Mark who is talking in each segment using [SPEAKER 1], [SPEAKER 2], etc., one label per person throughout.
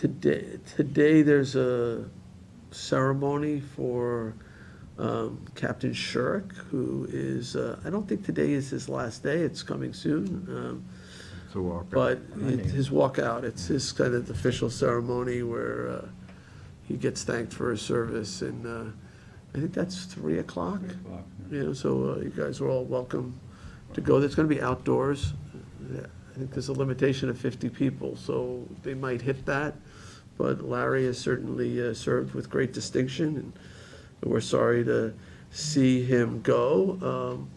[SPEAKER 1] Today, today there's a ceremony for um, Captain Shurik, who is, uh, I don't think today is his last day, it's coming soon. um,
[SPEAKER 2] So walk.
[SPEAKER 1] But it- his walkout, it's his kind of official ceremony where uh, he gets thanked for his service, and uh, I think that's 3 o'clock. You know, so uh, you guys are all welcome to go. It's going to be outdoors. Yeah, I think there's a limitation of 50 people, so they might hit that. But Larry has certainly uh, served with great distinction, and we're sorry to see him go. Um,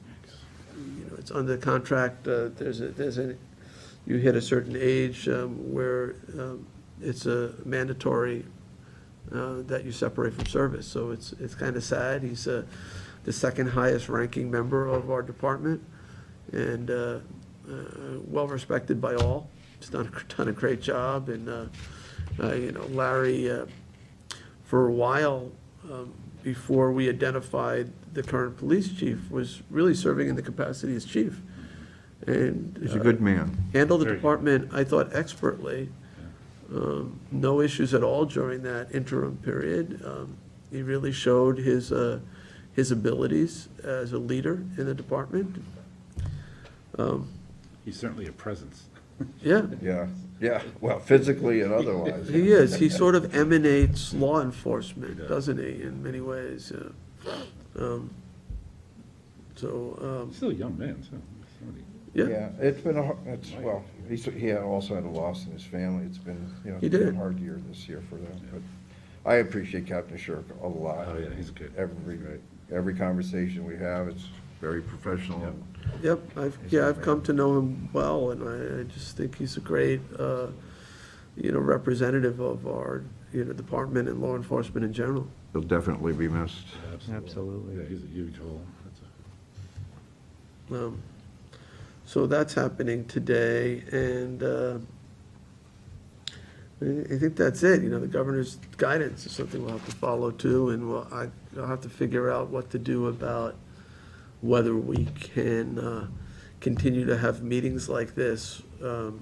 [SPEAKER 1] You know, it's under contract, uh, there's a, there's a, you hit a certain age um, where um, it's a mandatory uh, that you separate from service. So it's, it's kind of sad. He's uh, the second highest ranking member of our department and uh, uh, well-respected by all. He's done, a- done a great job and, uh, uh, you know, Larry, uh, for a while, um, before we identified the current police chief, was really serving in the capacity as chief. And.
[SPEAKER 2] He's a
[SPEAKER 1] uh,
[SPEAKER 2] good man.
[SPEAKER 1] handled the
[SPEAKER 3] Very good.
[SPEAKER 1] department, I thought expertly. Um, No issues at all during that interim period. Um, He really showed his, uh, his abilities as a leader in the department.
[SPEAKER 3] He's certainly a presence.
[SPEAKER 1] Yeah,
[SPEAKER 4] Yeah, yeah, well, physically and otherwise.
[SPEAKER 1] he is. He sort of emanates law enforcement,
[SPEAKER 3] does.
[SPEAKER 1] doesn't he, in many ways? yeah. Um, So, um,
[SPEAKER 3] Still a young man, so. somebody-
[SPEAKER 1] yeah,
[SPEAKER 4] Yeah, it's been a, har- it's, well, he's, he had- also had a loss in his family, it's been, you know,
[SPEAKER 1] He
[SPEAKER 4] it's been
[SPEAKER 1] did.
[SPEAKER 4] a hard year this year for them, but I appreciate Captain Shirk a lot.
[SPEAKER 3] Oh, yeah, he's good.
[SPEAKER 4] Every,
[SPEAKER 3] Right.
[SPEAKER 4] every conversation we have, it's very professional.
[SPEAKER 3] Yep.
[SPEAKER 1] yep, I've, yeah, I've come to know him well, and I, I just think he's a great, uh, you know, representative of our, you know, department and law enforcement in general.
[SPEAKER 2] He'll definitely be missed.
[SPEAKER 5] Absolutely.
[SPEAKER 3] Yeah, he's a huge hole. That's a-
[SPEAKER 1] Um, So that's happening today, and uh, I I think that's it, you know, the governor's guidance is something we'll have to follow too, and we'll, I- I'll have to figure out what to do about whether we can uh, continue to have meetings like this. Um,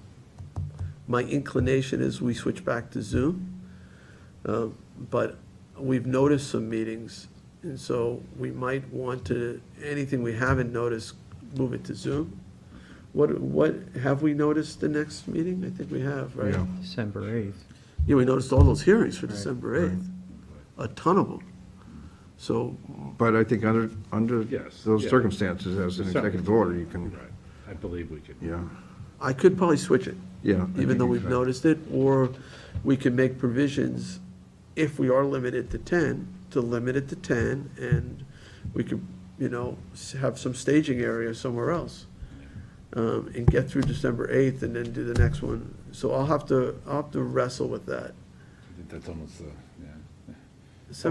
[SPEAKER 1] My inclination is we switch back to Zoom, Um, but we've noticed some meetings, and so we might want to, anything we haven't noticed, move it to Zoom. What, what, have we noticed the next meeting? I think we have, right?
[SPEAKER 2] Yeah.
[SPEAKER 5] December 8th.
[SPEAKER 1] Yeah, we noticed all those hearings for
[SPEAKER 5] Right,
[SPEAKER 1] December 8th, a ton of them. So,
[SPEAKER 2] But I think under, under
[SPEAKER 3] Yes,
[SPEAKER 2] those
[SPEAKER 3] yeah.
[SPEAKER 2] circumstances, as an
[SPEAKER 3] Certainly.
[SPEAKER 2] executive order, you can,
[SPEAKER 3] Right. I believe we could.
[SPEAKER 2] yeah,
[SPEAKER 1] I could probably switch it.
[SPEAKER 2] yeah. I
[SPEAKER 1] even
[SPEAKER 2] think
[SPEAKER 1] though
[SPEAKER 2] you
[SPEAKER 1] we've
[SPEAKER 2] can.
[SPEAKER 1] noticed it, or we can make provisions, if we are limited to ten, to limit it to ten, and we could, you know, s- have some staging area somewhere else. Um, and get through December eighth and then do the next one, so I'll have to, I'll have to wrestle with that.
[SPEAKER 3] I think That's almost, uh, yeah. Hopefully,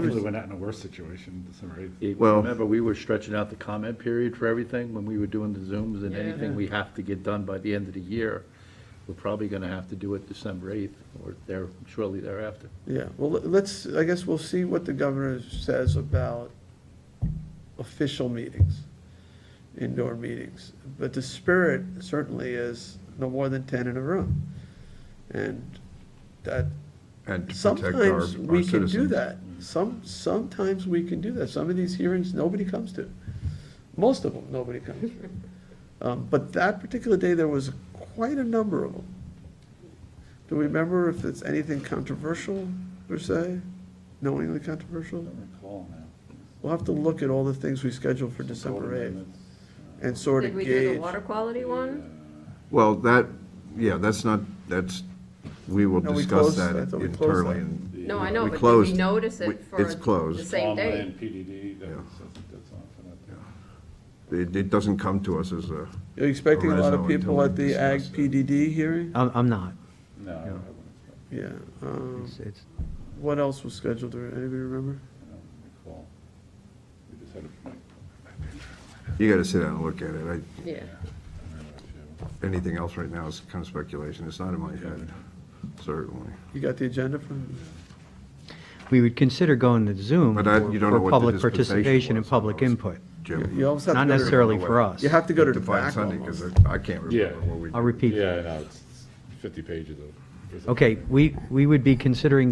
[SPEAKER 1] December-
[SPEAKER 3] we're not in a worse situation December 8th.
[SPEAKER 6] You
[SPEAKER 2] Well-
[SPEAKER 6] Remember, we were stretching out the comment period for everything when we were doing the Zooms and anything we have to get done by the end of the year. We're probably gonna have to do it December eighth or there, shortly thereafter.
[SPEAKER 1] Yeah, well, let- let's, I guess we'll see what the governor says about official meetings, indoor meetings. But the spirit certainly is no more than ten in a room. And that,
[SPEAKER 2] And to protect our-
[SPEAKER 1] sometimes we
[SPEAKER 2] our
[SPEAKER 1] can do
[SPEAKER 2] citizens.
[SPEAKER 1] that. Some, sometimes we can do that. Some of these hearings, nobody comes to. Most of them, nobody comes to. Um, But that particular day, there was quite a number of them. Do we remember if it's anything controversial, per se? Knowingly controversial?
[SPEAKER 3] Don't recall now.
[SPEAKER 1] We'll have to look at all the things we scheduled for December
[SPEAKER 3] Golden
[SPEAKER 1] 8th
[SPEAKER 3] Minutes.
[SPEAKER 1] and sort of
[SPEAKER 7] Did we do the
[SPEAKER 1] gauge.
[SPEAKER 7] water quality one?
[SPEAKER 2] Well, that, yeah, that's not, that's, we will
[SPEAKER 1] No, we
[SPEAKER 2] discuss
[SPEAKER 1] closed-
[SPEAKER 2] that
[SPEAKER 1] I thought we closed
[SPEAKER 2] internally.
[SPEAKER 1] that.
[SPEAKER 2] and-
[SPEAKER 7] No,
[SPEAKER 3] uh,
[SPEAKER 7] I know,
[SPEAKER 2] We
[SPEAKER 7] but did we
[SPEAKER 2] closed.
[SPEAKER 7] notice
[SPEAKER 2] We-
[SPEAKER 7] it for
[SPEAKER 2] it's closed.
[SPEAKER 7] the same day?
[SPEAKER 3] Farmland, PDD, that
[SPEAKER 2] Yeah.
[SPEAKER 3] was- that's, that's on for that.
[SPEAKER 2] It, it doesn't come to us as a,
[SPEAKER 1] You're expecting a lot of
[SPEAKER 2] Arezzo until
[SPEAKER 1] people
[SPEAKER 2] we
[SPEAKER 1] at the Ag
[SPEAKER 2] discuss it.
[SPEAKER 1] PDD hearing?
[SPEAKER 5] I'm, I'm not.
[SPEAKER 3] No, I
[SPEAKER 5] Yeah.
[SPEAKER 3] wouldn't expect-
[SPEAKER 1] Yeah. um,
[SPEAKER 5] It's, it's,
[SPEAKER 1] What else was scheduled? Anybody remember?
[SPEAKER 3] I don't recall. We just had a,
[SPEAKER 2] you gotta sit down and look at it. I,
[SPEAKER 3] I
[SPEAKER 7] Yeah.
[SPEAKER 3] remember a few.
[SPEAKER 2] anything else right now is kind of speculation. It's not in my head, certainly.
[SPEAKER 1] You got the agenda from?
[SPEAKER 5] we would consider going to Zoom
[SPEAKER 2] But I- you don't know
[SPEAKER 5] for
[SPEAKER 2] what the
[SPEAKER 5] for public
[SPEAKER 2] dispensation
[SPEAKER 5] participation and
[SPEAKER 2] was, so I
[SPEAKER 5] public
[SPEAKER 2] was-
[SPEAKER 5] input,
[SPEAKER 1] You
[SPEAKER 2] Jim.
[SPEAKER 1] you also have to
[SPEAKER 5] not
[SPEAKER 1] go to-
[SPEAKER 5] necessarily for us.
[SPEAKER 1] You have to go to the
[SPEAKER 2] Define
[SPEAKER 1] back
[SPEAKER 2] Sunday,
[SPEAKER 1] almost.
[SPEAKER 2] because I can't
[SPEAKER 3] Yeah.
[SPEAKER 2] remember what we.
[SPEAKER 5] I'll repeat.
[SPEAKER 3] Yeah, I know, it's it's 50 pages of
[SPEAKER 5] Okay, we, we would be considering